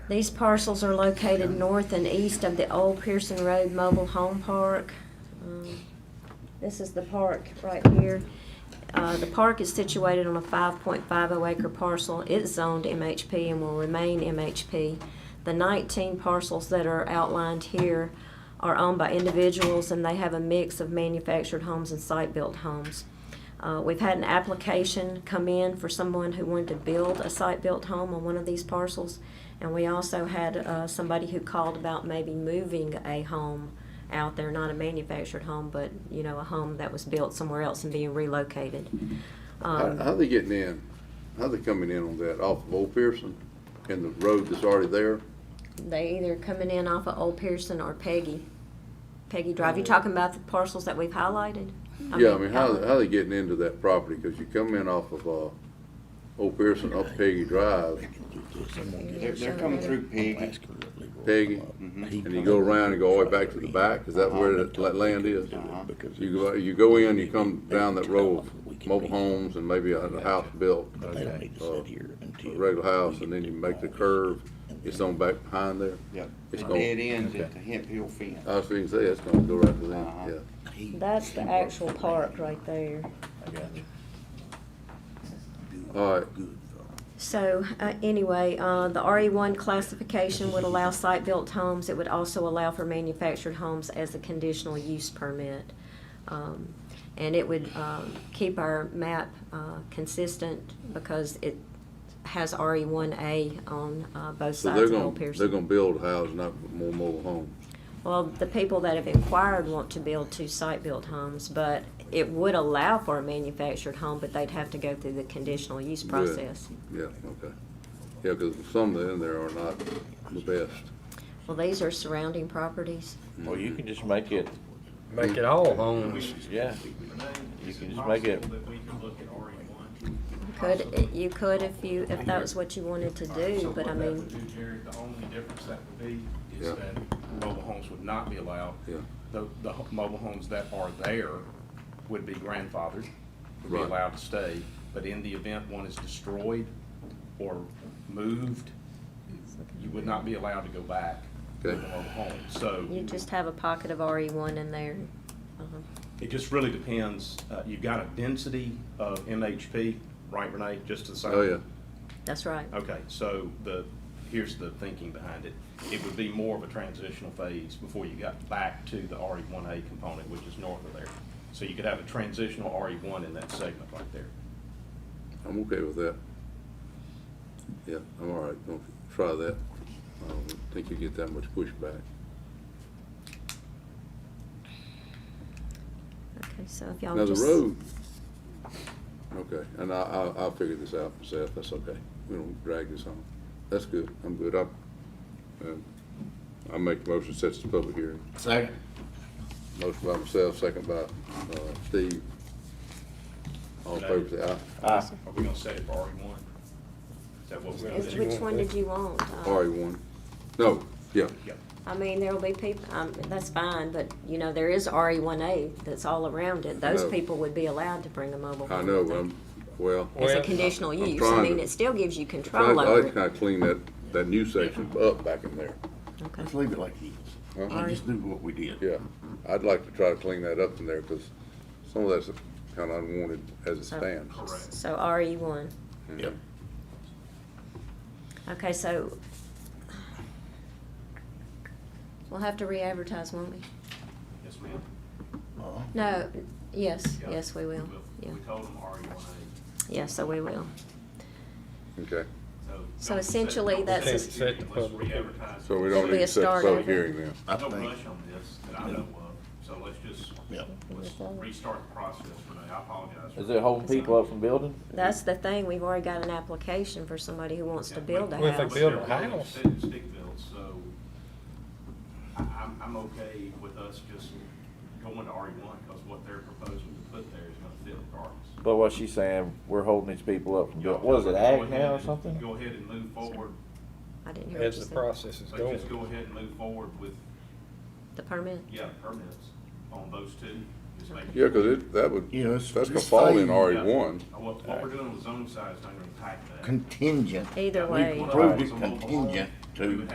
These parcels are located north and east of the old Pearson Road Mobile Home Park. Um, This is the park right here. Uh, The park is situated on a 5.50 acre parcel. It's zoned MHP and will remain MHP. The 19 parcels that are outlined here are owned by individuals, and they have a mix of manufactured homes and site-built homes. Uh, We've had an application come in for someone who wanted to build a site-built home on one of these parcels. And we also had uh, somebody who called about maybe moving a home out there, not a manufactured home, but, you know, a home that was built somewhere else and being relocated. How, Um, how they getting in? How they coming in on that off of Old Pearson and the road that's already there? They either coming in off of Old Pearson or Peggy, Peggy Drive. You talking about the parcels that we've highlighted? Mm. uh, Yeah, I mean, uh-huh. how, outlined. how they getting into that property? Cause you come in off of, uh, Old Pearson up Peggy Drive They're, they're coming through Peggy. Peggy, and you go around and go all the way back to the back, is that where that, that land is? Uh-huh. You go, you go in, you come down that row of mobile homes and maybe a, a house built, They don't need to uh, sit here a until. regular house, and then you make the curve, it's on back behind there. Yep. It's It going- dead ends at the Hemp Hill fence. I was thinking, say, it's gonna go right to them, Uh-huh. yeah. He- That's the he works actual for me. park right there. I got you. All right. Good. So, uh, anyway, uh, the RE1 classification would allow site-built homes. It would also allow for manufactured homes as a conditional use permit. Um, And it would um, keep our map uh, consistent because it has RE1A on uh, both So sides they're of Old gonna, they're Pearson. gonna build houses, not more mobile homes. Well, the people that have inquired want to build two site-built homes, but it would allow for a manufactured home, but they'd have to go through the conditional use Good. process. Yeah, okay. Yeah, cause some that in there are not the best. Well, these are surrounding properties. Well, you can just make it, Make it all homes. yeah, you can just make it, Could, you could if you, if that was what you wanted to do, but I mean, Jared, the only difference that would be is Yeah. that mobile homes would not be allowed. Yeah. The, the ho- mobile homes that are there would be grandfathered, would be Right. allowed to stay. But in the event one is destroyed or moved, you would not be allowed to go back to the Okay. mobile home. So you just have a pocket of RE one in there. Uh-huh. it just really depends. Uh, You've got a density of MHP, right, Renee, just to the side? Oh, yeah. That's right. Okay, so the, here's the thinking behind it. It would be more of a transitional phase before you got back to the RE one A component, which is north of there. So you could have a transitional RE one in that segment right there. I'm okay with that. Yeah, I'm all right, gonna try that. I don't think you get that much pushback. Okay, so if y'all Now, the just. road, okay, and I, I, I'll figure this out myself, that's okay. We don't drag this on. That's good, I'm good, I, um, I make the motion, sets the public hearing. Second. Motion by myself, second by, uh, Steve. All in favor, say aye. Are we gonna set it for RE one? Is that what we're gonna Which do? which one did you want? Uh, RE one. No, yeah, Yeah. I mean, there'll be people, um, that's fine, but you know, there is RE one A that's all around it. Those No. people would be allowed to bring a mobile home. I know, but I'm, well, As a Well, conditional I'm use. I trying mean, to- it still gives you I control over like it. kinda clean that, that new section up back in there. Okay. Let's leave it like it is. Uh-huh. And just do what we did. Yeah, I'd like to try to clean that up in there, cause some of that's kinda unwanted as it So- stands. So RE one. Yep. Okay, so we'll have to re-advertise, won't we? Yes, ma'am. Uh-huh. No, yes, Yeah. yes, we will. We Yeah, we told them RE one yeah, so we will. Okay, A. So essentially, that's a- Set the Let's public. re-advertise. so we It'll don't be need a to set the start public over. hearing then. I No think, rush on this that I know of, so let's just, yeah. let's restart the process, Renee. I apologize. is it holding people up from building? That's the thing, we've already got an application for somebody who wants to build a Well, if they house. build- a house. Stick- stick built, so I, I'm, I'm okay with us just going to RE one, because what they're proposing to put there is gonna fit regardless. But what she's saying, we're holding these people up from building, what is it, Go ag ahead now or and- something? Go ahead and move forward, I didn't hear what you As the said. process is so going. just go ahead and move forward with, The permit? yeah, permits on those two. Just make- Yeah, cause it, that would, You know, it's- that's gonna it's fall in fine. RE one. What, what we're doing with zone size, is not gonna impact that. Contingent. Either We way, want Proved it some mobile home. contingent We Two. would